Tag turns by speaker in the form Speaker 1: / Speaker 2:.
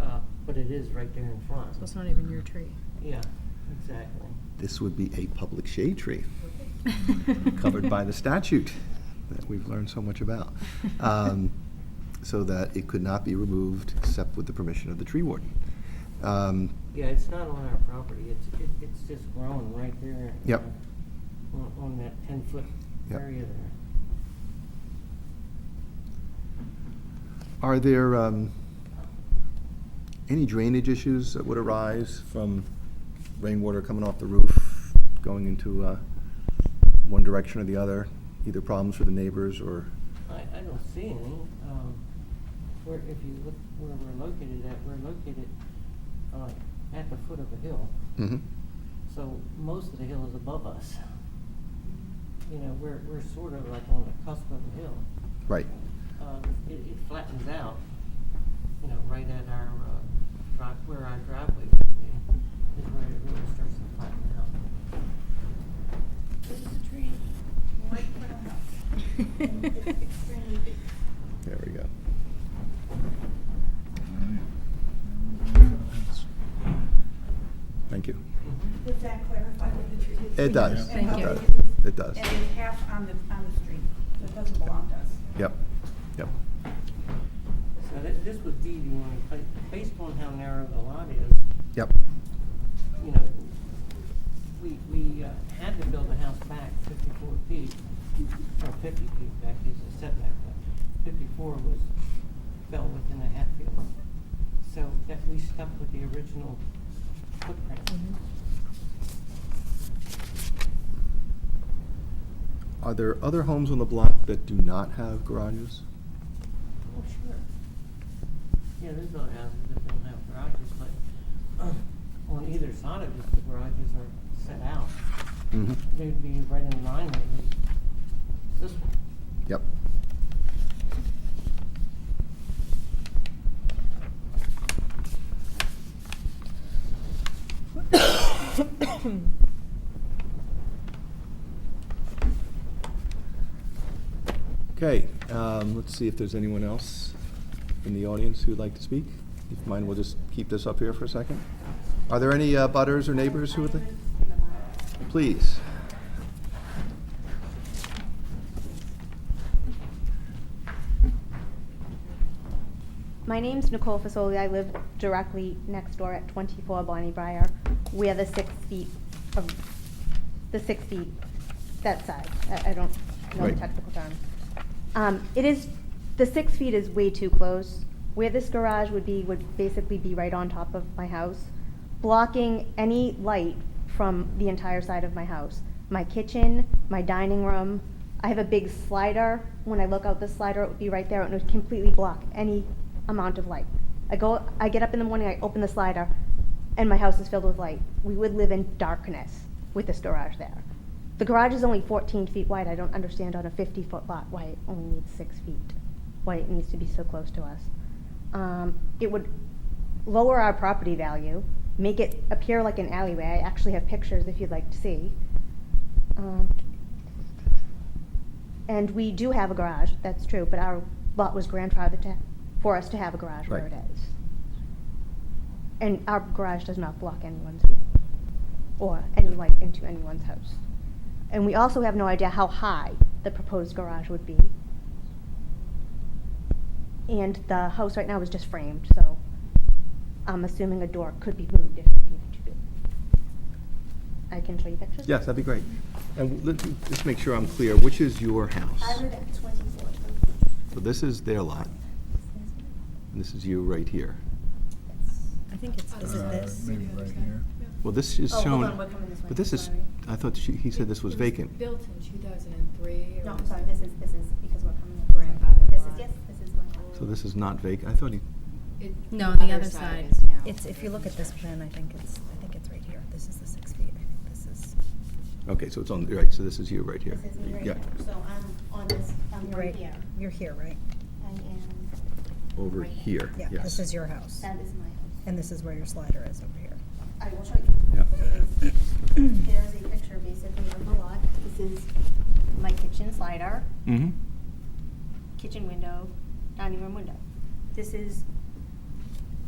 Speaker 1: Uh, but it is right there in front.
Speaker 2: So it's not even your tree.
Speaker 1: Yeah, exactly.
Speaker 3: This would be a public shade tree covered by the statute that we've learned so much about. Um, So that it could not be removed except with the permission of the tree warden. Um,
Speaker 1: Yeah, it's not on our property, it's, it, it's just grown right there.
Speaker 3: Yep.
Speaker 1: uh, On, on that ten-foot
Speaker 3: Yep.
Speaker 1: area there.
Speaker 3: Are there um, any drainage issues that would arise from rainwater coming off the roof, going into uh, one direction or the other? Either problems for the neighbors or,
Speaker 1: I, I don't see any. Um, where, if you look where we're located at, we're located, uh, at the foot of a hill. So most of the hill is above us. You know, we're, we're sort of like on the cusp of the hill.
Speaker 3: right?
Speaker 1: Uh, it, it flattens out, you know, right at our, uh, drive, where our driveway would be, is where it really starts to flatten out.
Speaker 4: This is a tree, right in front of us. It's extremely big.
Speaker 3: There we go. Thank you.
Speaker 4: Does that clarify what the tree is?
Speaker 3: It does.
Speaker 4: And how
Speaker 2: Thank you.
Speaker 4: big it is?
Speaker 3: It does.
Speaker 4: And it's half on the, on the street, so it doesn't belong to us.
Speaker 3: Yep, yep.
Speaker 1: So this, this would be the only place, based on how narrow the lot is,
Speaker 3: Yep.
Speaker 1: you know, we, we uh, had to build a house back fifty-four feet, or fifty feet back is a setback, but fifty-four was, fell within a Hatfield. So that we stuck with the original footprint.
Speaker 2: Mhm.
Speaker 3: Are there other homes on the block that do not have garages?
Speaker 1: Oh, sure. Yeah, there's other houses that don't have garages, but uh, on either side of it, the garages are set out.
Speaker 3: Mm-hmm.
Speaker 1: They'd be right in line with this one.
Speaker 3: Yep. Okay, um, let's see if there's anyone else in the audience who'd like to speak. If you mind, we'll just keep this up here for a second. Are there any uh, butters or neighbors who would like? Please.
Speaker 5: My name's Nicole Fasoli. I live directly next door at 24 Bonnie Briar, where the six feet of, the six feet, that side. I, I don't know the
Speaker 3: Right.
Speaker 5: technical term. Um, it is, the six feet is way too close. Where this garage would be, would basically be right on top of my house, blocking any light from the entire side of my house. My kitchen, my dining room. I have a big slider. When I look out the slider, it would be right there and it would completely block any amount of light. I go, I get up in the morning, I open the slider, and my house is filled with light. We would live in darkness with this garage there. The garage is only 14 feet wide. I don't understand on a 50-foot lot why it only needs six feet, why it needs to be so close to us. Um, It would lower our property value, make it appear like an alleyway. I actually have pictures if you'd like to see. Um, And we do have a garage, that's true, but our lot was grandfathered to, for us to have a garage where
Speaker 3: Right.
Speaker 5: it is. And our garage does not block anyone's view or any light into anyone's house. And we also have no idea how high the proposed garage would be. And the house right now is just framed, so I'm assuming a door could be moved if it needed to be. I can show you pictures?
Speaker 3: Yes, that'd be great. And let, just make sure I'm clear, which is your house?
Speaker 4: I live at twenty-four.
Speaker 3: So this is their lot, and this is you right here.
Speaker 2: I think it's, is it this?
Speaker 6: Uh, Maybe right here.
Speaker 3: Well, this is
Speaker 4: Oh, hold
Speaker 3: shown.
Speaker 4: on, we're coming this way,
Speaker 3: But this is,
Speaker 4: sorry.
Speaker 3: I thought she, he said this was
Speaker 7: It
Speaker 3: vacant.
Speaker 7: Built in two thousand and three.
Speaker 4: No, I'm sorry, this is, this is, because we're coming up.
Speaker 7: Grandfather
Speaker 4: This is,
Speaker 7: lot.
Speaker 4: yes, this is my old.
Speaker 3: So this is not vacant. I thought he,
Speaker 2: No, on the other side.
Speaker 7: is now.
Speaker 2: It's, if you look at this plan, I think it's, I think it's right here. This is the six feet. I think this is.
Speaker 3: okay, so it's on, right, so this is you right here.
Speaker 4: This is me right
Speaker 3: Yeah,
Speaker 4: here, so I'm on this, I'm
Speaker 2: You're
Speaker 4: right here.
Speaker 2: You're here, right?
Speaker 4: I am,
Speaker 3: over
Speaker 4: Right.
Speaker 3: here,
Speaker 2: Yeah,
Speaker 3: yes.
Speaker 2: this is your house.
Speaker 4: that is my house.
Speaker 2: And this is where your slider is over here.
Speaker 4: I will show you.
Speaker 3: Yeah.
Speaker 4: There's a picture basically of the lot. This is my kitchen slider,
Speaker 3: Mm-hmm,
Speaker 4: kitchen window, dining room window. This is